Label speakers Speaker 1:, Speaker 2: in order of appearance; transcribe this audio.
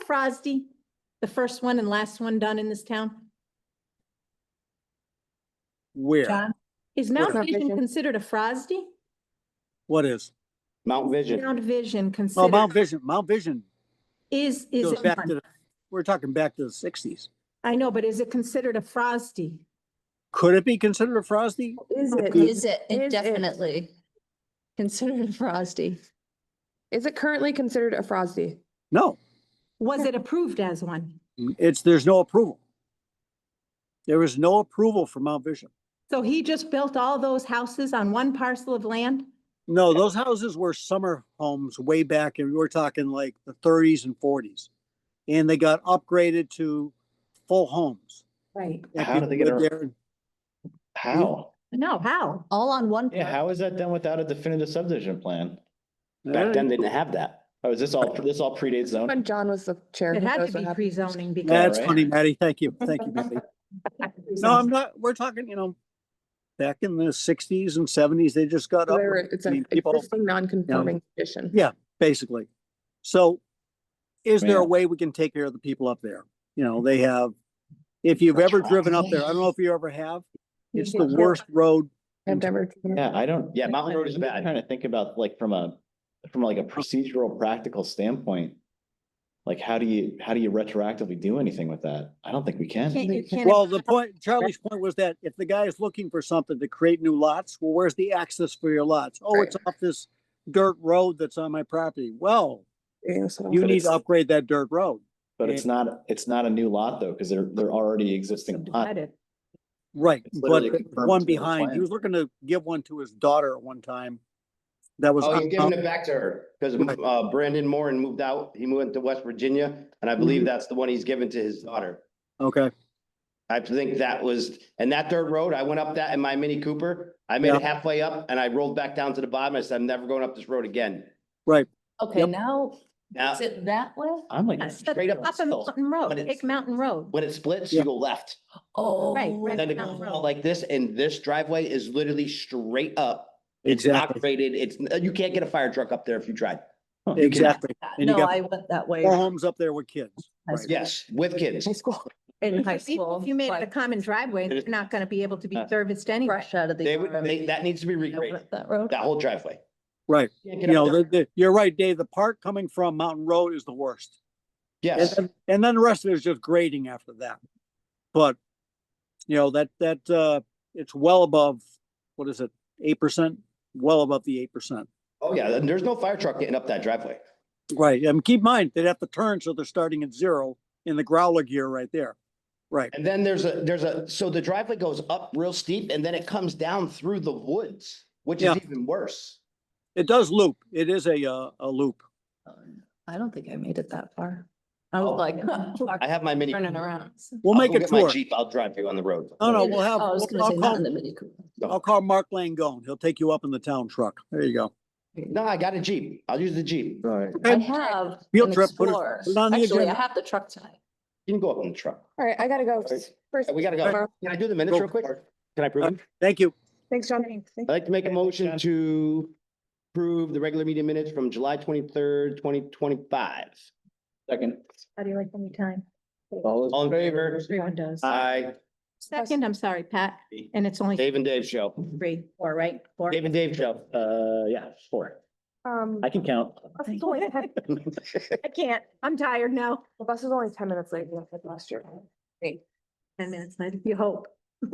Speaker 1: Crosby, the first one and last one done in this town?
Speaker 2: Where?
Speaker 1: John? Is
Speaker 2: Mount
Speaker 1: Mount
Speaker 3: Mount
Speaker 1: Vision
Speaker 3: Vision.
Speaker 1: considered a Frosty?
Speaker 2: What is?
Speaker 4: Mount Vision.
Speaker 1: Mount Vision
Speaker 2: Oh,
Speaker 1: considered
Speaker 2: Mount Vision, Mount Vision
Speaker 1: is, is
Speaker 2: goes
Speaker 1: it
Speaker 2: back to,
Speaker 1: one?
Speaker 2: the- we're talking back to the sixties.
Speaker 1: I know, but is it considered a Frosty?
Speaker 2: Could it be considered a Frosty?
Speaker 3: Is
Speaker 5: Is
Speaker 3: it?
Speaker 5: it
Speaker 3: Is it-
Speaker 5: indefinitely considered frosty?
Speaker 3: Is it currently considered a Frosty?
Speaker 2: No,
Speaker 1: Was it approved as one?
Speaker 2: it's, there's no approval. There is no approval for Mount Vision.
Speaker 1: So he just built all those houses on one parcel of land?
Speaker 2: No, those houses were summer homes way back and we were talking like the thirties and forties. And they got upgraded to full homes.
Speaker 1: Right.
Speaker 2: And
Speaker 4: How did they
Speaker 2: people
Speaker 4: get
Speaker 2: lived there.
Speaker 4: How?
Speaker 1: No, how?
Speaker 5: All on one.
Speaker 6: Yeah, how is that done without a definitive subdivision plan?
Speaker 4: Back
Speaker 2: Yeah.
Speaker 4: then, they didn't have that. Oh, is this all, this all predates zoning?
Speaker 3: When John was the chair.
Speaker 1: It
Speaker 3: who
Speaker 1: had
Speaker 3: knows
Speaker 1: to
Speaker 3: what
Speaker 1: be
Speaker 3: happened.
Speaker 1: pre-zoning because.
Speaker 2: That's
Speaker 6: right?
Speaker 2: funny, Maddie. Thank you. Thank you, Maddie. No, I'm not, we're talking, you know, back in the sixties and seventies, they just got
Speaker 3: So
Speaker 2: up,
Speaker 3: they were- It's
Speaker 2: I
Speaker 3: an
Speaker 2: mean, people-
Speaker 3: existing non-conforming condition.
Speaker 2: Yeah. basically. So is there a
Speaker 6: Man.
Speaker 2: way we can take care of the people up there? You know, they have, if you've ever driven up there, I don't know if you ever have, it's the worst road.
Speaker 3: I've never.
Speaker 6: Yeah, I don't, yeah, Mountain Road is bad. I'm trying to think about like from a, from like a procedural, practical standpoint. Like, how do you, how do you retroactively do anything with that? I don't think we
Speaker 1: Can't-
Speaker 6: can.
Speaker 1: you can't-
Speaker 2: Well, the point, Charlie's point was that if the guy is looking for something to create new lots, well, where's the access for your lots? Oh,
Speaker 3: Right.
Speaker 2: it's off this dirt road that's on my property. Well,
Speaker 3: Yeah, so-
Speaker 2: you
Speaker 6: But
Speaker 2: need
Speaker 6: it's-
Speaker 2: to upgrade that dirt road.
Speaker 6: But it's not, it's not a new lot though, because they're, they're already
Speaker 2: uh,
Speaker 6: existing. lot.
Speaker 1: Subdivided.
Speaker 2: Right,
Speaker 6: It's
Speaker 2: but
Speaker 6: literally
Speaker 2: the
Speaker 6: confirmed
Speaker 2: one
Speaker 6: to the
Speaker 2: behind, he
Speaker 6: plan.
Speaker 2: was looking to give one to his daughter at one time. That was,
Speaker 4: Oh, he's giving it
Speaker 2: uncommon.
Speaker 4: back to her because
Speaker 2: Right.
Speaker 4: uh, Brandon Moran moved out. He moved to West Virginia, and
Speaker 2: Mm-hmm.
Speaker 4: I believe that's the one he's given to his daughter.
Speaker 2: okay,
Speaker 4: I think that was, and that dirt road, I went up that in my Mini Cooper. I made
Speaker 2: Yeah.
Speaker 4: it halfway up and I rolled back down to the bottom. I said, I'm never going up this road again.
Speaker 5: Okay,
Speaker 2: Yep.
Speaker 5: now
Speaker 4: Now,
Speaker 5: is it that way?
Speaker 6: I'm like,
Speaker 1: That's the-
Speaker 4: straight up
Speaker 1: Up a
Speaker 4: hill,
Speaker 1: mountain
Speaker 4: but
Speaker 1: road,
Speaker 4: it's-
Speaker 1: Hick Mountain Road.
Speaker 4: when it splits,
Speaker 2: Yeah.
Speaker 4: you go left.
Speaker 5: Oh.
Speaker 1: right.
Speaker 4: Then it
Speaker 1: Mountain
Speaker 4: goes
Speaker 1: Road.
Speaker 4: out like this and this driveway is literally straight up. It's not
Speaker 2: exactly,
Speaker 4: graded. It's, you can't get a fire truck up there if you tried. You cannot.
Speaker 2: exactly. And you
Speaker 5: No,
Speaker 2: got
Speaker 5: I went that way.
Speaker 2: four homes up there with kids.
Speaker 5: High
Speaker 2: right.
Speaker 5: school.
Speaker 4: Yes, with kids.
Speaker 5: High school. In high
Speaker 1: If you-
Speaker 5: school.
Speaker 1: If you made it a
Speaker 5: like,
Speaker 1: common driveway, they're not gonna be able to be
Speaker 4: Uh,
Speaker 1: serviced anyway.
Speaker 5: Fresh out of the.
Speaker 4: They would,
Speaker 5: army.
Speaker 4: they- that needs to be
Speaker 5: I went
Speaker 4: regraded,
Speaker 5: up That road.
Speaker 4: that whole driveway.
Speaker 2: Right,
Speaker 4: Can't
Speaker 2: you
Speaker 4: get up
Speaker 2: know, the,
Speaker 4: there.
Speaker 2: the, you're right, Dave, the part coming from Mountain Road is the worst. And
Speaker 4: Yes,
Speaker 2: then, and then the rest of it is just grading after that. But, you know, that, that, uh, it's well above, what is it, eight percent? Well above the eight percent.
Speaker 4: oh yeah, and there's no fire truck getting up that driveway.
Speaker 2: Right, and keep in mind, they'd have to turn, so they're starting at zero in the growler gear right there. Right,
Speaker 4: And then there's a, there's a, so the driveway goes up real steep and then it comes down through the woods, which
Speaker 2: Yeah.
Speaker 4: is even worse.
Speaker 2: it does loop, it is a, uh, a loop.
Speaker 5: I don't think I made it that far. I
Speaker 4: Oh.
Speaker 5: was like.
Speaker 4: I have my mini.
Speaker 5: Turning around.
Speaker 2: We'll
Speaker 4: I'll
Speaker 2: make
Speaker 4: go
Speaker 2: a
Speaker 4: get my
Speaker 2: tour.
Speaker 4: Jeep, I'll drive you on the road.
Speaker 2: No, no, we'll have,
Speaker 5: Oh, I was
Speaker 2: we'll-
Speaker 5: gonna say
Speaker 2: I'll
Speaker 5: not
Speaker 2: call,
Speaker 5: in the Mini Cooper.
Speaker 2: I'll call Mark Langone, he'll take you up in the town truck, there you go.
Speaker 4: No, I got a Jeep. I'll use the Jeep.
Speaker 6: All right.
Speaker 5: I
Speaker 2: Okay.
Speaker 5: have.
Speaker 2: Field
Speaker 5: an
Speaker 2: trip, put it-
Speaker 5: Explorer.
Speaker 2: put it on the
Speaker 5: Actually, I
Speaker 2: agenda.
Speaker 5: have the truck tonight.
Speaker 4: You can go up in the truck.
Speaker 3: All right, I gotta go.
Speaker 4: Right.
Speaker 3: First,
Speaker 4: We gotta go.
Speaker 3: tomorrow.
Speaker 4: Can I do the minutes
Speaker 2: Go.
Speaker 4: real quick? Can I prove them?
Speaker 2: Thank you.
Speaker 3: Thanks, John. Thank
Speaker 4: I'd like to make a motion to approve the regular meeting minutes from July twenty-third, twenty twenty-five.
Speaker 6: Second.
Speaker 1: How do you like any time?
Speaker 4: All in favor?
Speaker 1: Everyone does.
Speaker 4: Aye.
Speaker 1: Second, I'm sorry, Pat, and it's only
Speaker 4: Dave and Dave show.
Speaker 1: three, four, right? Four.
Speaker 4: Dave and Dave show.
Speaker 6: Uh, yeah, four.
Speaker 3: Um,
Speaker 6: I can count.
Speaker 1: I can't, I'm tired now.
Speaker 3: the bus is only ten minutes late, like last year.
Speaker 1: Ten minutes later, you hope.